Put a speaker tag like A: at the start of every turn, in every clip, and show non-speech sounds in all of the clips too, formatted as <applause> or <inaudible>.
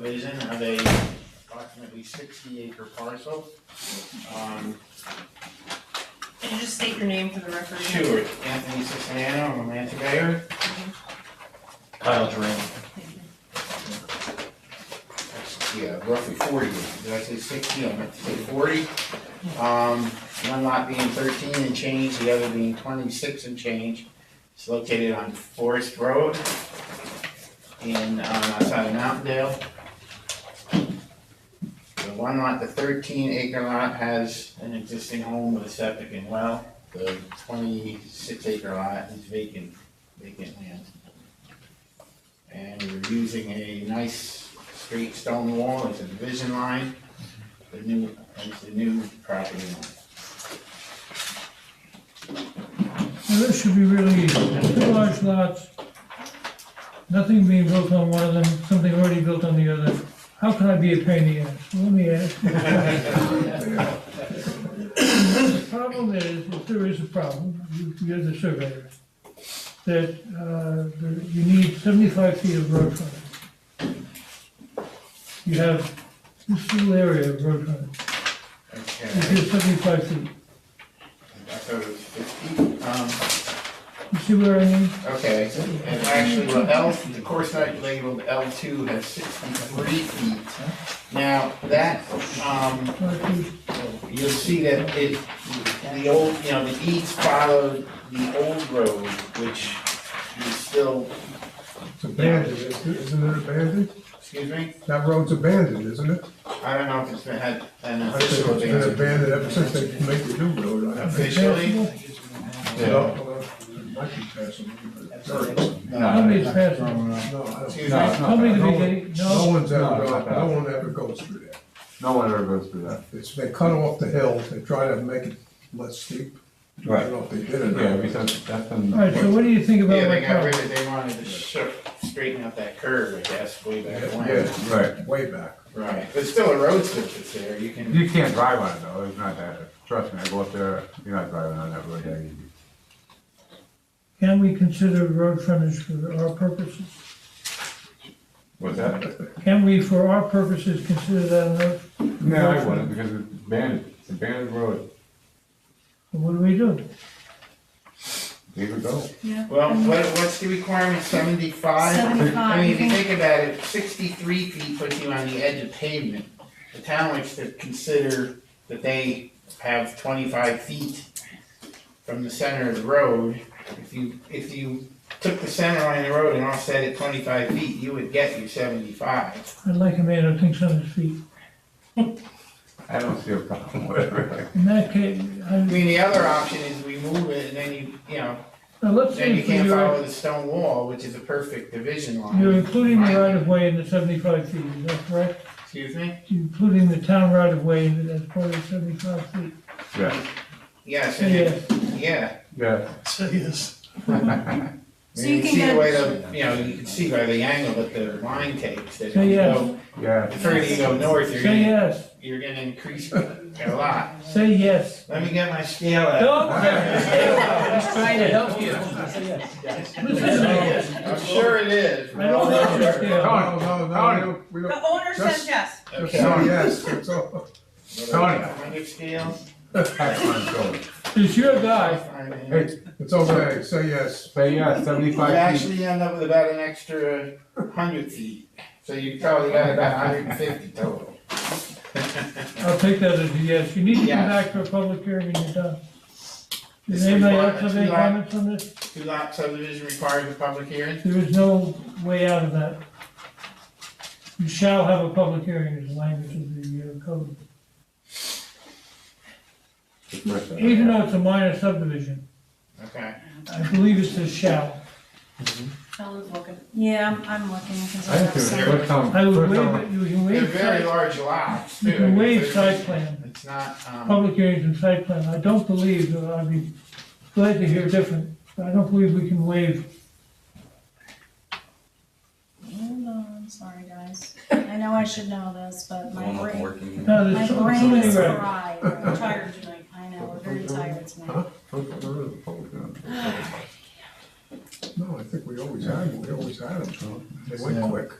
A: subdivision of a approximately sixty acre parcel. Um,
B: Can you just state your name for the record?
A: Stewart, Anthony Siciliano, I'm a land surveyor. Kyle Duran. Yeah, roughly forty, did I say sixty, I meant to say forty. Um, one lot being thirteen and change, the other being twenty-six and change. It's located on Forest Road in, uh, outside of Mountaindale. The one lot, the thirteen acre lot has an existing home with a septic and well. The twenty-six acre lot is vacant, vacant land. And we're using a nice straight stone wall as a division line, the new, as the new property line.
C: Now, this should be really easy, two large lots, nothing being built on one of them, something already built on the other. How can I be a pain in the ass? Let me ask. The problem is, if there is a problem, you- you're the surveyor, that uh, there- you need seventy-five feet of road frontage. You have this little area of road frontage,
A: Okay,
C: which is seventy-five feet.
A: I thought it was fifty, um,
C: You see where I mean?
A: okay, and actually, well, L, the course I labeled L two has sixty-three feet. Now, that, um,
C: Five feet.
A: you'll see that it, the old, you know, the east followed the old road, which is still,
D: It's abandoned, isn't it abandoned?
A: excuse me,
D: That road's abandoned, isn't it?
A: I don't know if it's been had an
D: I think
A: official
D: it's been
A: abandonment.
D: abandoned ever since they made the new road. I think.
A: Officially?
D: Well, uh, it Might be passing.
C: Nobody's passing.
D: No, I don't-
A: Excuse me?
C: How many do
D: No
C: we
D: one-
C: get?
D: No one's
E: No,
D: ever,
E: it's not
D: gone-
E: bad.
D: no one ever goes through that.
E: No one ever goes through that.
D: It's, they cut off the hill, they try to make it less steep. I don't know if they did it.
E: Yeah, because that's been.
C: All right, so what do you think about
A: Yeah,
C: my
A: they got rid
C: problem?
A: of, they wanted to sh- straighten out that curve, I guess, way back when.
D: Yeah,
E: Right.
D: way back.
A: Right, but still a road switch is there, you can,
E: You can't drive on it though, it's not that, trust me, I go up there, you're not driving on that road that easy.
C: Can we consider road frontage for our purposes?
E: What's that?
C: Can we, for our purposes, consider that enough?
E: No, I wouldn't, because it's abandoned, it's abandoned road,
C: What do we do?
E: there you go.
B: Yeah.
A: well, what, what's the requirement, seventy-five? I mean, if you
B: 75.
A: think about it, sixty-three feet puts you on the edge of pavement. The town likes to consider that they have twenty-five feet from the center of the road. If you, if you took the center line of the road and offset it twenty-five feet, you would get your seventy-five.
C: I'd like a man who thinks on his feet.
E: I don't see a problem with it.
C: In that case,
A: I
C: I,
A: mean, the other option is we move it and then you, you know,
C: now let's
A: then
C: say
A: you
C: if
A: can't follow
C: you're,
A: the stone wall, which is a perfect division line.
C: you're including the right of way in the seventy-five feet, is that correct?
A: Excuse me?
C: You're Including the town right of way that's part of the seventy-five feet.
E: Yeah,
A: Yes, and
C: Yeah,
A: it- yeah.
E: yeah,
B: So
A: I
B: you
A: mean,
B: can
A: see the
B: get-
A: way the, you know, you can see by the angle that the line takes, that if
C: Say
A: you
C: yes.
A: go,
E: yeah.
A: the further you go north, you're
C: say
A: gonna,
C: yes,
A: you're gonna increase a lot.
C: say yes.
A: Let me get my scale out.
C: Don't,
F: He's trying to help you.
C: listen,
A: <laughs> I'm sure it is.
C: I don't
D: No,
C: want
D: no,
C: your scale.
D: No, no, no, we don't- we don't,
B: The owner says
D: Just-
B: yes.
D: just
A: Okay.
D: say yes, that's all.
E: Tony.
A: Hundred scale?
E: That's what I'm going.
C: It's your guy,
A: You
E: Hey,
D: It's okay, say yes.
E: say yeah, seventy-five feet,
A: actually end up with about an extra hundred feet, so you probably got about hundred and fifty total.
C: I'll take that as a yes, you need to
A: Yes.
C: come back for a public hearing when you're done.
A: This
C: Does anybody
A: requirement-
C: else have any
A: Yeah.
C: comments on this?
A: Two lot subdivision requires a public hearing?
C: There is no way out of that. You shall have a public hearing is the language of the uh, code, even though it's a minor subdivision,
A: Okay.
C: I believe it says shall.
B: Helen's looking. Yeah, I'm- I'm looking because
E: I
B: I
E: think
B: have
E: it was the
B: some.
E: first time,
C: I would
E: first
C: waive,
E: time,
C: it. you can
A: They're
C: waive,
A: very
C: site-
A: large lots,
C: you
A: too.
C: can waive site plan,
A: It's not, um,
C: public hearings and site plan, I don't believe, uh, I'd be glad to hear different, but I don't believe we can waive.
B: Hold on, sorry guys. I know I should know this, but my brain,
C: No,
B: my
C: <laughs> there's so so
B: brain
C: many
B: is
C: regs.
B: fried. <laughs> I'm tired tonight. I know, we're very tired tonight.
D: No, I think we always had them, we always had them. They went quick.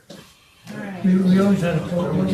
B: all right.
C: We, we always had a problem.